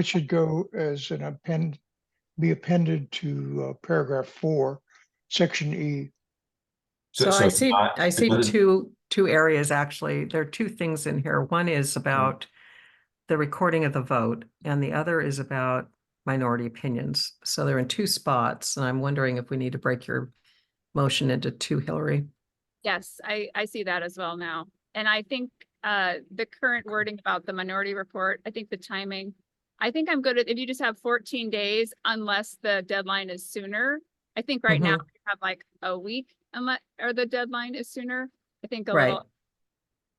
It should go as an append, be appended to uh, paragraph four, section E. So so I it's see, not- I it see doesn't- two, two areas, actually. There are two things in here. One is Mm-hmm. about the recording of the vote and the other is about minority opinions. So they're in two spots and I'm wondering if we need to break your motion into two, Hillary. Yes, I, I see that as well now. And I think, uh, the current wording about the minority report, I think the timing, I think I'm good at, if you just have fourteen days unless the deadline is sooner. I think right Mm-hmm. now we have like a week unless, or the deadline is sooner. I think a Right. little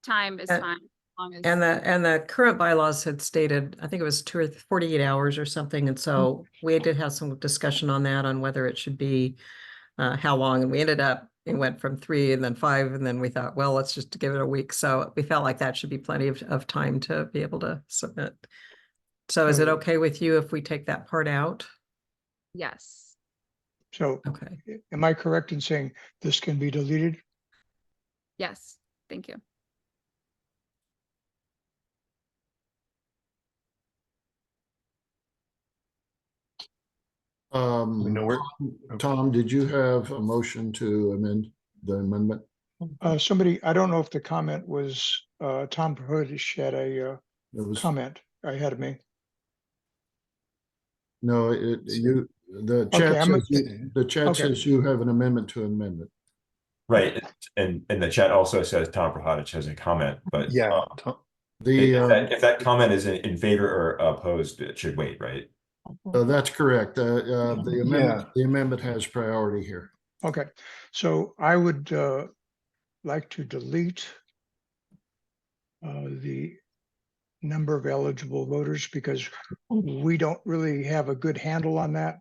time is Uh, fine. as long as- And the, and the current bylaws had stated, I think it was two or th- forty-eight hours or something, and so we did have some discussion on that, on whether it should be uh, how long, and we ended up, it went from three and then five, and then we thought, well, let's just give it a week, so we felt like that should be plenty of, of time to be able to submit. So is it So- okay with you if we take that part out? Yes, So Okay, a- am I correct in saying this can be deleted? yes, thank you. Um, We know where- Um, Tom, did you have a motion to amend the amendment? Uh, somebody, I don't know if the comment was, uh, Tom Purdish had a, uh, It was, comment ahead of me. no, it, you, the Okay, chat I'm says, you- the chat okay. says you have an amendment to amendment. Right, it- and, and the chat also says Tom Prohodich has a comment, but. Yeah, um, Uh, Tom- The, If that, uh, if that comment is in, in favor or opposed, it should wait, right? uh, that's correct. Uh, uh, the amendment, Yeah. the amendment has priority here. Okay, so I would uh, like to delete uh, the number of eligible voters because Mm-hmm. we don't really have a good handle on that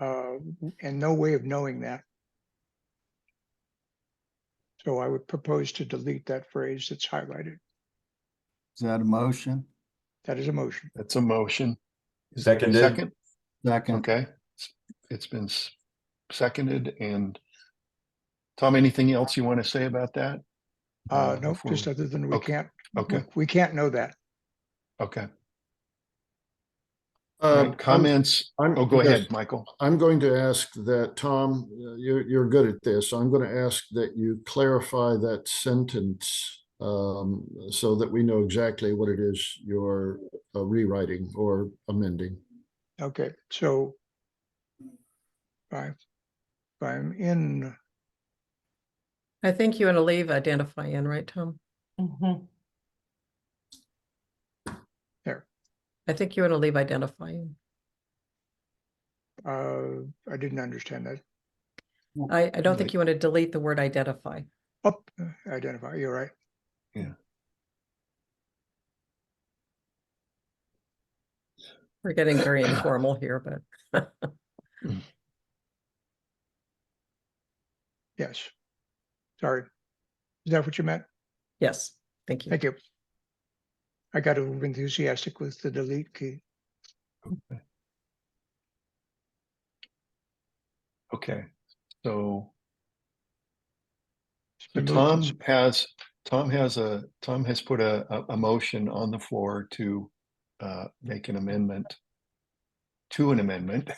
uh, and no way of knowing that. So I would propose to delete that phrase that's highlighted. Is that a motion? That is a motion. that's a motion. Is there a Seconded. Second, Second, okay. S- It's been s- seconded and Tom, anything else you want to say about that? Uh, No, before just we- other than we okay, can't, Okay, we can't know that. okay. All Uh, right, Comments? I'm- Oh, go yes. ahead, Michael. I'm going to ask that, Tom, uh, you're, you're good at this. I'm going to ask that you clarify that sentence um, so that we know exactly what it is you're uh, rewriting or amending. Okay, so if I, if I'm in, I think you want to leave identify in, right, Tom? There. I think you want to leave identify in. uh, I didn't understand that. I, I don't think Right. you want to delete the word identify. Up, uh, identify, you're right. We're getting very informal here, but. Yes. Sorry. Is that what you meant? Yes, thank you. Thank you. I got over enthusiastic with the delete key. Okay, so It's so been moved Tom and s- has, Tom has a, Tom has put a, a, a motion on the floor to uh, make an amendment to an amendment.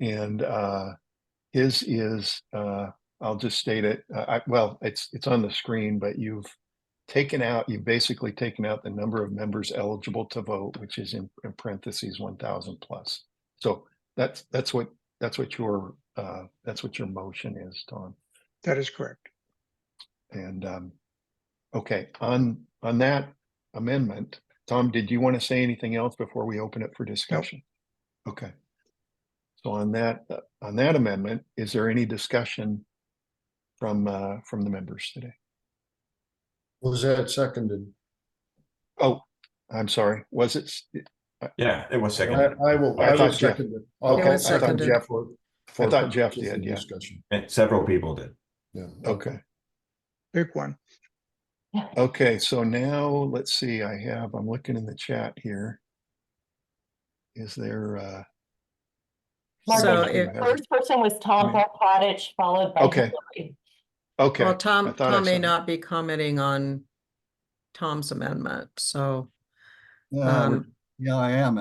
And uh, his is, uh, I'll just state it, uh, I, well, it's, it's on the screen, but you've taken out, you've basically taken out the number of members eligible to vote, which is in in parentheses one thousand plus. So that's, that's what, that's what your, uh, that's what your motion is, Tom. That is correct. And, um, okay, on, on that amendment, Tom, did you want to say anything else before we open it for discussion? Okay. So on that, uh, on that amendment, is there any discussion from, uh, from the members today? Was that seconded? Oh, I'm sorry, was it? s- Yeah, it was I, second. I will, I I thought will Jeff- second it. Okay, was I thought seconded. Jeff were- for thought Jeff purposes did, of yeah. Discussion. And Several people did. Yeah. Um, Okay, Pick one. okay, so now, let's see, I have, I'm looking in the chat here. Is there, uh? So somebody who if- has- First person was Tom Yeah. Prodich, followed by. Okay. Hillary. Okay. Well, Tom, thought I Tom saw may it. not be commenting on Tom's amendment, so. Uh, yeah, I would- Um, yeah, I am